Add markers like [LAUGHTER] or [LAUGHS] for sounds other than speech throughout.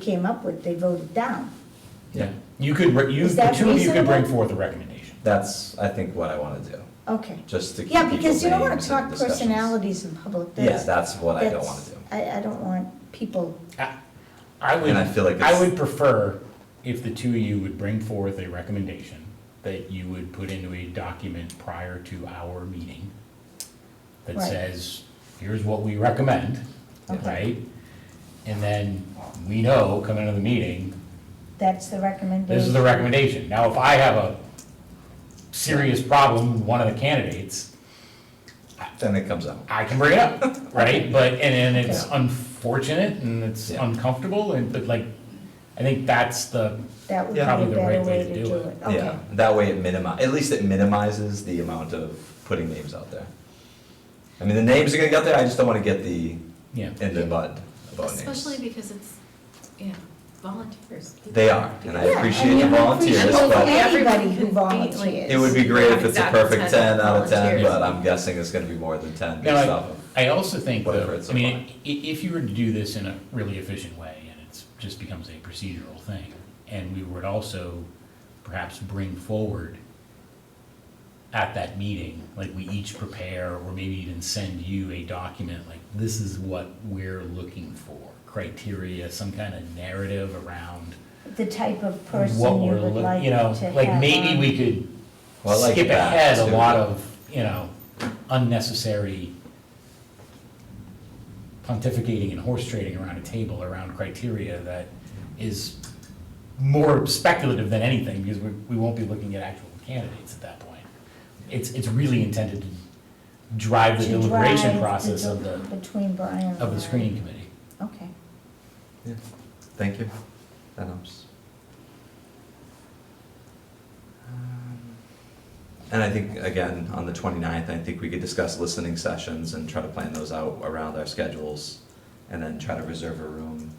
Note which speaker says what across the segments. Speaker 1: came up with, they voted down.
Speaker 2: Yeah,
Speaker 3: You could, re- you,
Speaker 1: Is
Speaker 3: the
Speaker 1: that
Speaker 3: two of you could bring
Speaker 1: reasonable?
Speaker 3: forth a recommendation.
Speaker 2: that's, I think, what I want to do,
Speaker 1: Okay.
Speaker 2: just to keep
Speaker 1: Yeah, because you don't want
Speaker 2: people's
Speaker 1: to talk
Speaker 2: names and discussions.
Speaker 1: personalities in public.
Speaker 2: Yes, that's what I don't want
Speaker 1: that's-
Speaker 2: to do.
Speaker 1: I, I don't want people,
Speaker 3: I I would,
Speaker 2: And I feel like
Speaker 3: I
Speaker 2: it's-
Speaker 3: would prefer if the two of you would bring forth a recommendation that you would put into a document prior to our meeting that
Speaker 1: Right.
Speaker 3: says, here's what we recommend,
Speaker 1: Okay.
Speaker 3: right? And then we know coming into the meeting,
Speaker 1: that's the recommendation.
Speaker 3: this is the recommendation. Now, if I have a serious problem with one of the candidates,
Speaker 2: Then it comes out.
Speaker 3: I can bring
Speaker 2: [LAUGHS]
Speaker 3: it up, right? But, and, and it's
Speaker 1: Okay.
Speaker 3: unfortunate and it's
Speaker 2: Yeah.
Speaker 3: uncomfortable and, but like, I think that's the,
Speaker 1: That would be a
Speaker 2: Yeah.
Speaker 3: Probably the
Speaker 1: better
Speaker 3: right
Speaker 1: way to do it. Okay.
Speaker 2: Yeah, that way it minimi, at least it minimizes the amount of putting names out there. I mean, the names are gonna get there, I just don't want to get the,
Speaker 3: yeah.
Speaker 2: in the mud about names.
Speaker 4: Especially because it's, you know, volunteers.
Speaker 2: They are, and I
Speaker 1: Yeah,
Speaker 2: appreciate
Speaker 1: and
Speaker 2: the
Speaker 1: we
Speaker 2: volunteers,
Speaker 1: appreciate
Speaker 2: but
Speaker 1: Anybody who
Speaker 4: Everyone can be, like,
Speaker 1: volunteers.
Speaker 2: it would be great if it's a
Speaker 4: Exactly,
Speaker 2: perfect
Speaker 4: 10
Speaker 2: ten out of ten,
Speaker 4: volunteers.
Speaker 2: but I'm guessing it's gonna be more than ten
Speaker 3: Now,
Speaker 2: based off of.
Speaker 3: I, I also think,
Speaker 2: Whatever
Speaker 3: though,
Speaker 2: it's
Speaker 3: I mean, i- if you were to do this in a really efficient way, and it's, just becomes a procedural thing, and we would also perhaps bring forward at that meeting, like we each prepare, or maybe even send you a document, like, this is what we're looking for, criteria, some kind of narrative around
Speaker 1: The type of
Speaker 3: what
Speaker 1: person you
Speaker 3: we're,
Speaker 1: would
Speaker 3: look-
Speaker 1: like
Speaker 3: you
Speaker 1: to
Speaker 3: know,
Speaker 1: have.
Speaker 3: like, maybe
Speaker 1: on.
Speaker 3: we could
Speaker 2: Well, I like
Speaker 3: skip
Speaker 2: that,
Speaker 3: ahead a
Speaker 2: too.
Speaker 3: lot of, you know, unnecessary pontificating and horse trading around a table around criteria that is more speculative than anything, because we, we won't be looking at actual candidates at that point. It's, it's really intended to drive the
Speaker 1: To drive
Speaker 3: deliberation
Speaker 1: the
Speaker 3: process of
Speaker 1: del-
Speaker 3: the,
Speaker 1: Between Brian and.
Speaker 3: of
Speaker 1: I.
Speaker 3: the screening committee.
Speaker 1: Okay.
Speaker 2: Yeah. Thank you, that helps. And I think, again, on the 29th, I think we could discuss listening sessions and try to plan those out around our schedules, and then try to reserve a room,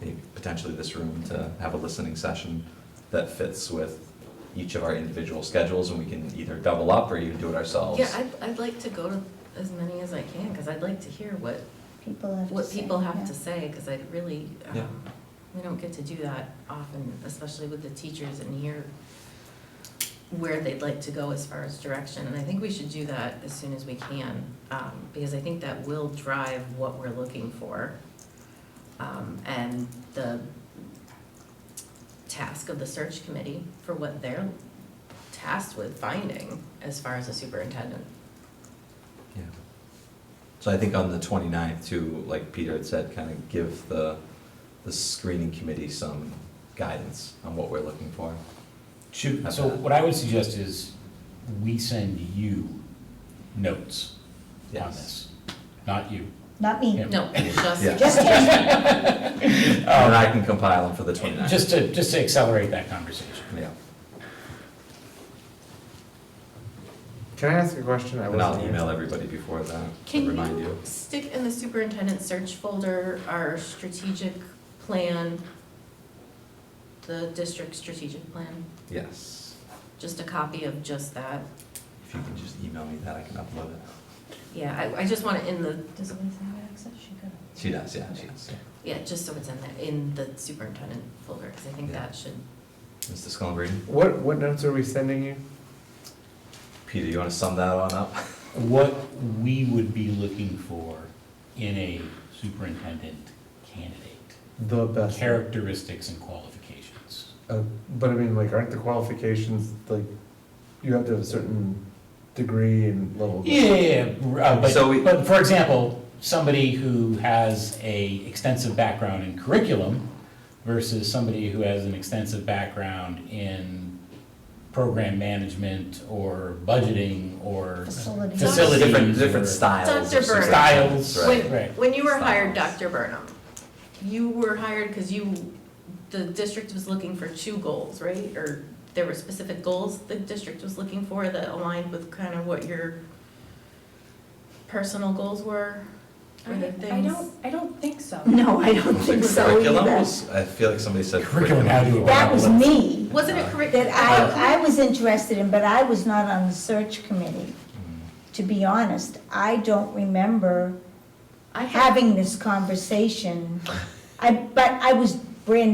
Speaker 2: maybe potentially this room, to have a listening session that fits with each of our individual schedules, and we can either double up or even do it ourselves.
Speaker 4: Yeah, I'd, I'd like to go to as many as I can, because I'd like to hear what,
Speaker 1: People have to
Speaker 4: what
Speaker 1: say,
Speaker 4: people
Speaker 1: yeah.
Speaker 4: have to say, because I really, um,
Speaker 2: Yeah.
Speaker 4: we don't get to do that often, especially with the teachers and hear where they'd like to go as far as direction, and I think we should do that as soon as we can, um, because I think that will drive what we're looking for. Um, and the task of the search committee for what they're tasked with finding as far as a superintendent.
Speaker 2: Yeah. So I think on the 29th too, like Peter had said, kind of give the, the screening committee some guidance on what we're looking for.
Speaker 3: Should,
Speaker 2: Not
Speaker 3: so
Speaker 2: bad.
Speaker 3: what I would suggest is we send you notes on
Speaker 2: Yes.
Speaker 3: this, not you.
Speaker 1: Not me.
Speaker 3: Yeah.
Speaker 4: No, just,
Speaker 2: Yeah.
Speaker 1: Just kidding.
Speaker 2: And then I can compile them for the 29th.
Speaker 3: Just to, just to accelerate that conversation.
Speaker 2: Yeah,
Speaker 5: Can I ask a question? I
Speaker 2: and I'll
Speaker 5: wasn't-
Speaker 2: email everybody before that to
Speaker 4: can
Speaker 2: remind
Speaker 4: you
Speaker 2: you.
Speaker 4: stick in the superintendent search folder our strategic plan, the district strategic plan,
Speaker 2: Yes.
Speaker 4: just a copy of just that?
Speaker 2: If you can just email me that, I can upload it.
Speaker 4: Yeah, I, I just want it in the, does Elise have access? She could.
Speaker 2: She does, yeah, she does.
Speaker 4: Yeah, just so it's in the, in the superintendent folder, because I think
Speaker 2: Yeah.
Speaker 4: that should
Speaker 2: Mr. Scullenbrady,
Speaker 5: What, what notes are we sending you?
Speaker 2: Peter, you want to sum that on up?
Speaker 3: What we would be looking for in a superintendent candidate,
Speaker 5: The best.
Speaker 3: characteristics and qualifications.
Speaker 5: Uh, but I mean, like, aren't the qualifications, like, you have to have a certain degree and level? of-
Speaker 3: Yeah, yeah, yeah, uh,
Speaker 2: So we-
Speaker 3: but, but for example, somebody who has a extensive background in curriculum versus somebody who has an extensive background in program management or budgeting or
Speaker 1: Facilities.
Speaker 3: facilities.
Speaker 2: Different,
Speaker 3: or
Speaker 2: different styles.
Speaker 4: Dr.
Speaker 2: of
Speaker 4: Bernard.
Speaker 2: superintendents,
Speaker 3: Styles.
Speaker 2: Right.
Speaker 3: Wait. Right.
Speaker 4: When you were hired,
Speaker 2: Styles.
Speaker 4: Dr. Burnham, you were hired because you, the district was looking for two goals, right? Or there were specific goals the district was looking for that aligned with kind of what your personal goals were?
Speaker 6: I
Speaker 4: Or the
Speaker 6: I
Speaker 4: things?
Speaker 6: don't, I don't think so.
Speaker 1: No, I
Speaker 4: [LAUGHS]
Speaker 1: don't
Speaker 2: Was it
Speaker 1: think so
Speaker 2: curriculum?
Speaker 1: either.
Speaker 2: Was- I feel like somebody said
Speaker 3: Curriculum, how do you-
Speaker 1: That was me,
Speaker 4: Wasn't it correct?
Speaker 1: that
Speaker 4: Oh.
Speaker 1: I, I was interested in, but I was not on the search committee.
Speaker 2: Mm.
Speaker 1: To be honest, I don't remember
Speaker 4: I had-
Speaker 1: having this conversation. I, but I was brand